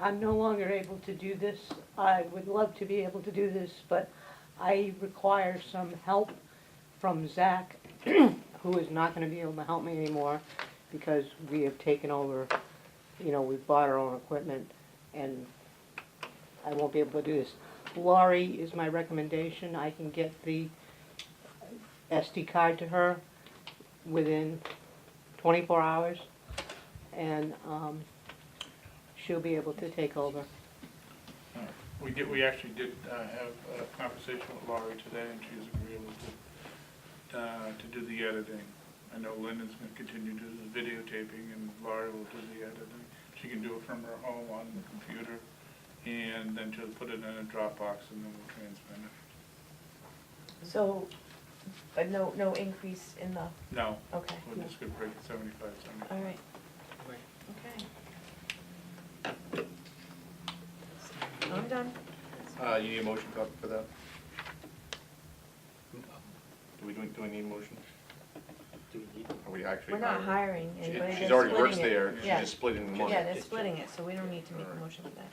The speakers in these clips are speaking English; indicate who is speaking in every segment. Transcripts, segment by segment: Speaker 1: I'm no longer able to do this. I would love to be able to do this, but I require some help from Zach, who is not gonna be able to help me anymore because we have taken over, you know, we've bought our own equipment and I won't be able to do this. Laurie is my recommendation. I can get the SD card to her within twenty-four hours. And, um, she'll be able to take over.
Speaker 2: We did, we actually did uh, have a conversation with Laurie today, and she is agreeable to, uh, to do the editing. I know Lyndon's gonna continue to do the videotaping, and Laurie will do the editing. She can do it from her home on the computer, and then she'll put it in a Dropbox, and then we'll transmit it.
Speaker 3: So, but no, no increase in the,
Speaker 2: No,
Speaker 3: okay,
Speaker 2: we're just gonna break it seventy-five, seventy-five.
Speaker 3: all right. Okay. I'm done.
Speaker 4: Uh, you need a motion copy for that? Do we, do we- do we need a motion?
Speaker 5: Do we need
Speaker 4: Are we actually?
Speaker 3: We're not
Speaker 4: hiring?
Speaker 3: hiring
Speaker 4: She-
Speaker 3: anybody,
Speaker 4: She's
Speaker 3: they're
Speaker 4: already works
Speaker 3: splitting it.
Speaker 4: there, she's
Speaker 3: Yeah.
Speaker 4: just splitting the money.
Speaker 3: Yeah, they're splitting it, so we don't need to make a motion for that.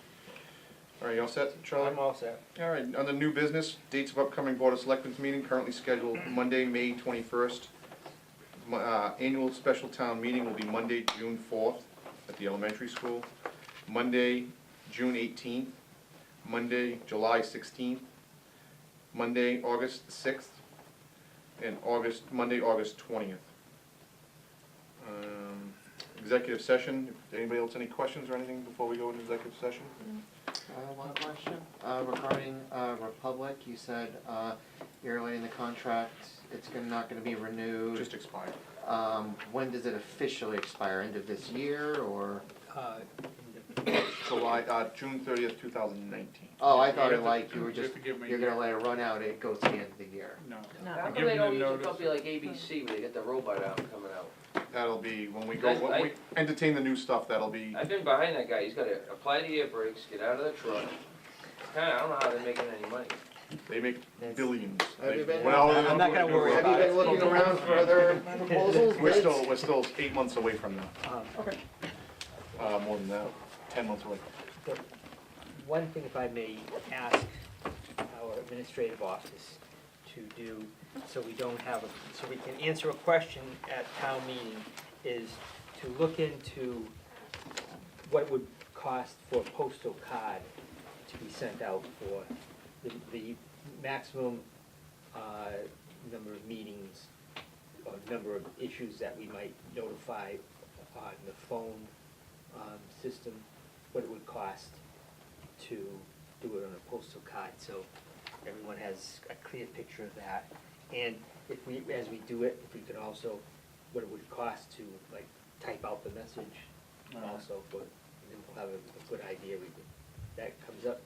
Speaker 4: All right, you all set, Charlie?
Speaker 5: I'm all set.
Speaker 4: All right, on the new business, dates of upcoming Board of Selectmen's meeting currently scheduled Monday, May twenty-first. Uh, annual special town meeting will be Monday, June fourth, at the elementary school. Monday, June eighteenth. Monday, July sixteenth. Monday, August sixth. And August, Monday, August twentieth. Um, executive session, anybody else any questions or anything before we go into executive session?
Speaker 6: Uh, One question uh, regarding uh, Republic, you said uh, yearly in the contract, it's gonna- not going to be renewed.
Speaker 4: Just expired.
Speaker 6: Um, When does it officially expire? End of this year or?
Speaker 5: Uh,
Speaker 4: July, uh, June thirtieth, two thousand nineteen.
Speaker 6: Oh, I
Speaker 2: You
Speaker 6: thought
Speaker 2: have
Speaker 6: it
Speaker 2: to-
Speaker 6: like you were
Speaker 2: you have
Speaker 6: just,
Speaker 2: to give me a
Speaker 6: you're going to let it run out, it goes to the end of the year.
Speaker 2: No.
Speaker 3: No,
Speaker 7: How
Speaker 2: Give
Speaker 7: come
Speaker 2: me
Speaker 7: they
Speaker 2: the
Speaker 7: don't use a
Speaker 2: notice.
Speaker 7: company like ABC when they get the robot out coming out?
Speaker 4: That'll be when we go, when we entertain the new stuff, that'll be,
Speaker 7: I've been behind that guy, he's gotta apply the air brakes, get out of the truck. Kinda, I don't know how they're making any money.
Speaker 4: they make billions.
Speaker 6: Have you been-
Speaker 4: Well,
Speaker 5: I'm not gonna worry
Speaker 6: Have you
Speaker 5: about
Speaker 6: been looking around for other proposals?
Speaker 4: We're
Speaker 6: bids?
Speaker 4: still, we're still eight months away from that,
Speaker 5: um,
Speaker 4: uh, more than that, ten months away.
Speaker 5: One thing, if I may ask our administrative office to do, so we don't have, a- so we can answer a question at town meeting, is to look into what it would cost for a postal card to be sent out for the, the maximum, uh, number of meetings, or number of issues that we might notify on the phone, um, system, what it would cost to do it on a postal card, so everyone has a clear picture of that. And if we, as we do it, if we could also, what it would cost to, like, type out the message
Speaker 2: Alright.
Speaker 5: also, but then we'll have a, a good idea, we, could- that comes up,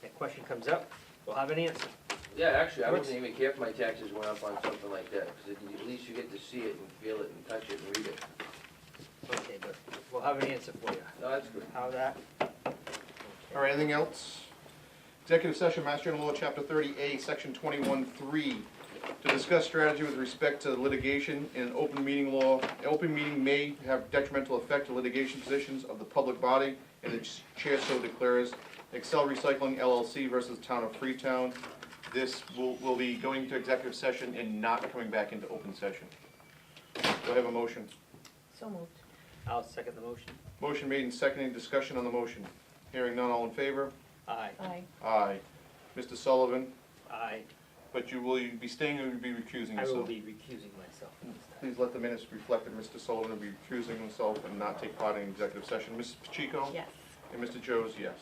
Speaker 5: that question comes up, we'll have an answer.
Speaker 7: Yeah, actually, I
Speaker 5: What's-
Speaker 7: wouldn't even care if my taxes went up on something like that, cause at- at least you get to see it and feel it and touch it and read it.
Speaker 5: Okay, but we'll have an answer for you.
Speaker 7: No, that's good.
Speaker 5: How that?
Speaker 4: All right, anything else? Executive session, Master General Law, Chapter thirty A, Section twenty-one, three, to discuss strategy with respect to litigation in an open meeting law. An open meeting may have detrimental effect to litigation positions of the public body, and the chair so declares. Excel Recycling LLC versus Town of Freetown. This will, will be going to executive session and not coming back into open session. Do I have a motion?
Speaker 3: so moved.
Speaker 5: I'll second the motion.
Speaker 4: Motion made and seconded, discussion on the motion. Hearing none, all in favor?
Speaker 5: Aye.
Speaker 3: Aye.
Speaker 4: Aye. Mr. Sullivan?
Speaker 5: Aye.
Speaker 4: But you will you be staying or you be recusing
Speaker 5: I will
Speaker 4: yourself?
Speaker 5: be recusing myself from this time.
Speaker 4: Please let the minutes reflect that Mr. Sullivan will be recusing himself and not take part in executive session. Mrs. Pacheco?
Speaker 3: Yes.
Speaker 4: And Mr. Joes, yes.